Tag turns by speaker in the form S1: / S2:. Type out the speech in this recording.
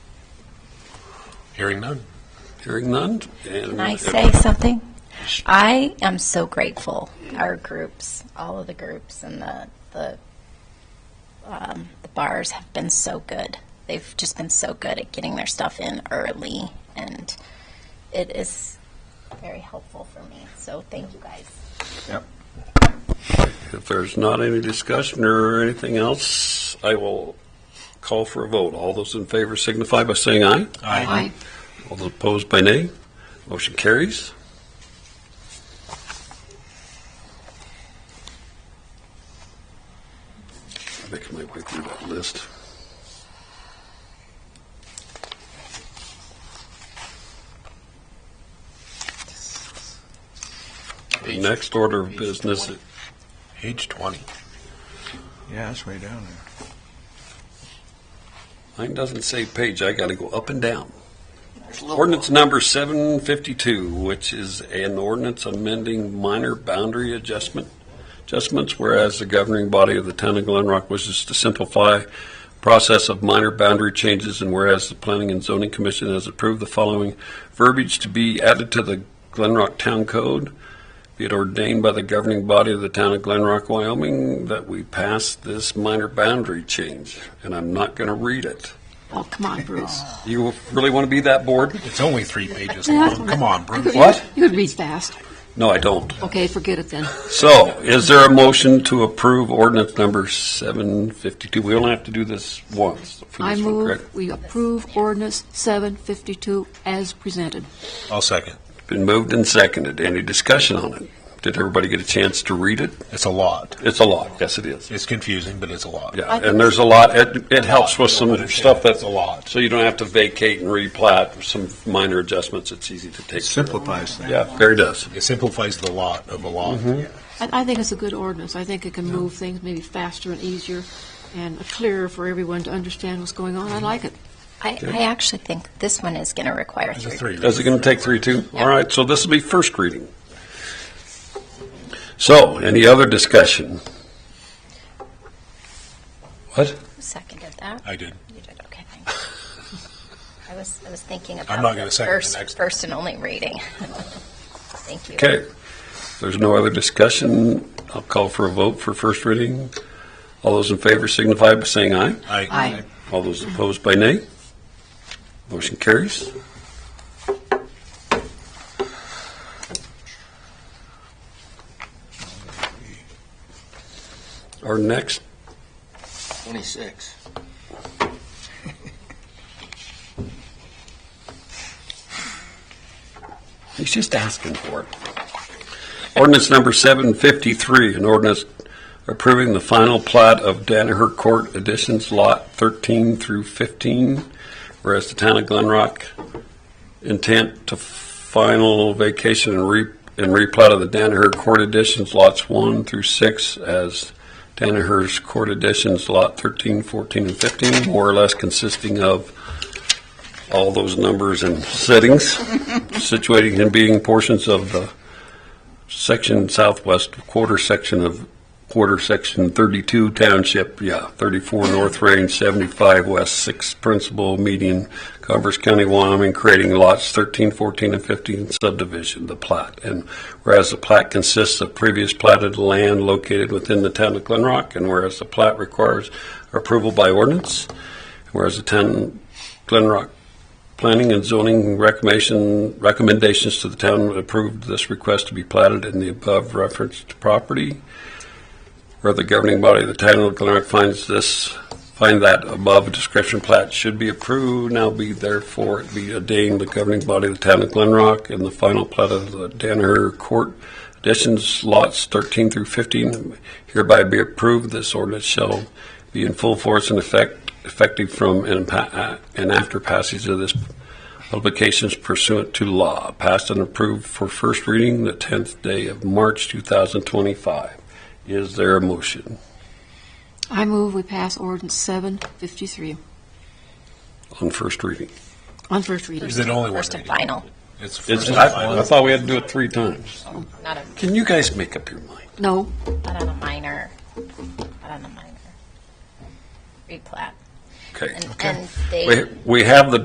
S1: Hearing none. Hearing none.
S2: Can I say something? I am so grateful, our groups, all of the groups and the, the, um, the bars have been so good. They've just been so good at getting their stuff in early and it is very helpful for me. So thank you guys.
S1: If there's not any discussion or anything else, I will call for a vote. All those in favor signify by saying aye.
S3: Aye.
S1: All those opposed by nay. Motion carries. Making my way through that list. The next order of business
S3: Page 20. Yeah, that's way down there.
S1: Mine doesn't say page, I gotta go up and down. Ordinance number seven fifty-two, which is an ordinance amending minor boundary adjustment, adjustments, whereas the governing body of the town of Glen Rock wishes to simplify process of minor boundary changes, and whereas the planning and zoning commission has approved the following verbiage to be added to the Glen Rock Town Code, be it ordained by the governing body of the town of Glen Rock, Wyoming, that we pass this minor boundary change, and I'm not gonna read it.
S4: Oh, come on, Bruce.
S1: You really want to be that bored?
S3: It's only three pages long. Come on, Bruce.
S1: What?
S4: You could read fast.
S1: No, I don't.
S4: Okay, forget it then.
S1: So, is there a motion to approve ordinance number 752? We only have to do this once for
S4: I
S1: this one, correct?
S4: move we approve ordinance 752 as presented.
S3: I'll second.
S1: Been moved and seconded. Any discussion on it? Did everybody get a chance to read it?
S3: It's a lot.
S1: It's a lot. Yes, it is.
S3: It's confusing, but it's a lot.
S1: Yeah, and there's a lot, it, it helps with some stuff that's,
S3: a lot.
S1: so you don't have to vacate and replat, some minor adjustments, it's easy to take. care of.
S3: Simplifies things.
S1: Yeah, very does.
S3: It simplifies the lot of a lot.
S1: Mm-hmm.
S4: I, I think it's a good ordinance. I think it can move things maybe faster and easier and clearer for everyone to understand what's going on. I like it.
S2: I, I actually think this one is going to require
S3: It's a
S2: three.
S3: three.
S1: Is it going to take three, two? All right, so this will be first reading. So, any other discussion? What?
S2: Who seconded that?
S3: I did.
S2: You did, okay, thanks. I was, I was thinking about.
S3: not gonna
S2: the
S3: second the
S2: first-
S3: next one.
S2: First and only reading. Thank you.
S1: Okay, If there's no other discussion. I'll call for a vote for first reading. All those in favor signify by saying aye.
S3: I,
S4: Aye.
S1: All those opposed by nay. Motion carries. Our next
S5: 26.
S1: He's just asking for it. Ordinance number 753, an ordinance approving the final plat of Danaher Court Additions Lot 13 through 15, whereas the town of Glen Rock intent to final vacation and re, and replat of the Danaher Court Additions Lots 1 through 6 as Danaher's Court Additions Lot 13, 14, and 15, more or less consisting of all those numbers and settings situating and being portions of the section southwest quarter section of quarter section 32 township, yeah, 34 north range, 75 west, 6 principal median, Converse County, Wyoming, creating lots 13, 14, and 15 subdivision, the plat. And whereas the plat consists of previous platted land located within the town of Glen Rock, and whereas the plat requires approval by ordinance, whereas the town Glen Rock Planning and zoning recommendation, recommendations to the town approved this request to be platted in the above referenced property. Where the governing body of the town of Glen Rock finds this, find that above description plat should be approved, now be therefore it be ordained the governing body of the town of Glen Rock and the final plat of the Danaher Court additions lots thirteen through fifteen hereby be approved. This ordinance shall be in full force and effect, effective from and pa- uh, and after passage of this publications pursuant to law, passed and approved for first reading the 10th day of March 2025. Is there a motion?
S4: I move we pass ordinance 753
S1: On first reading.
S4: on first reading.
S3: Is it only one
S2: First and
S3: reading?
S2: final,
S3: It's first
S1: It's-
S3: and
S1: I I
S3: final.
S1: thought we had to do it three times.
S2: not a,
S1: Can you guys make up your mind?
S4: No,
S2: not on a minor, not on a minor replat.
S1: Okay.
S2: And, uh, and they.
S1: We- We have the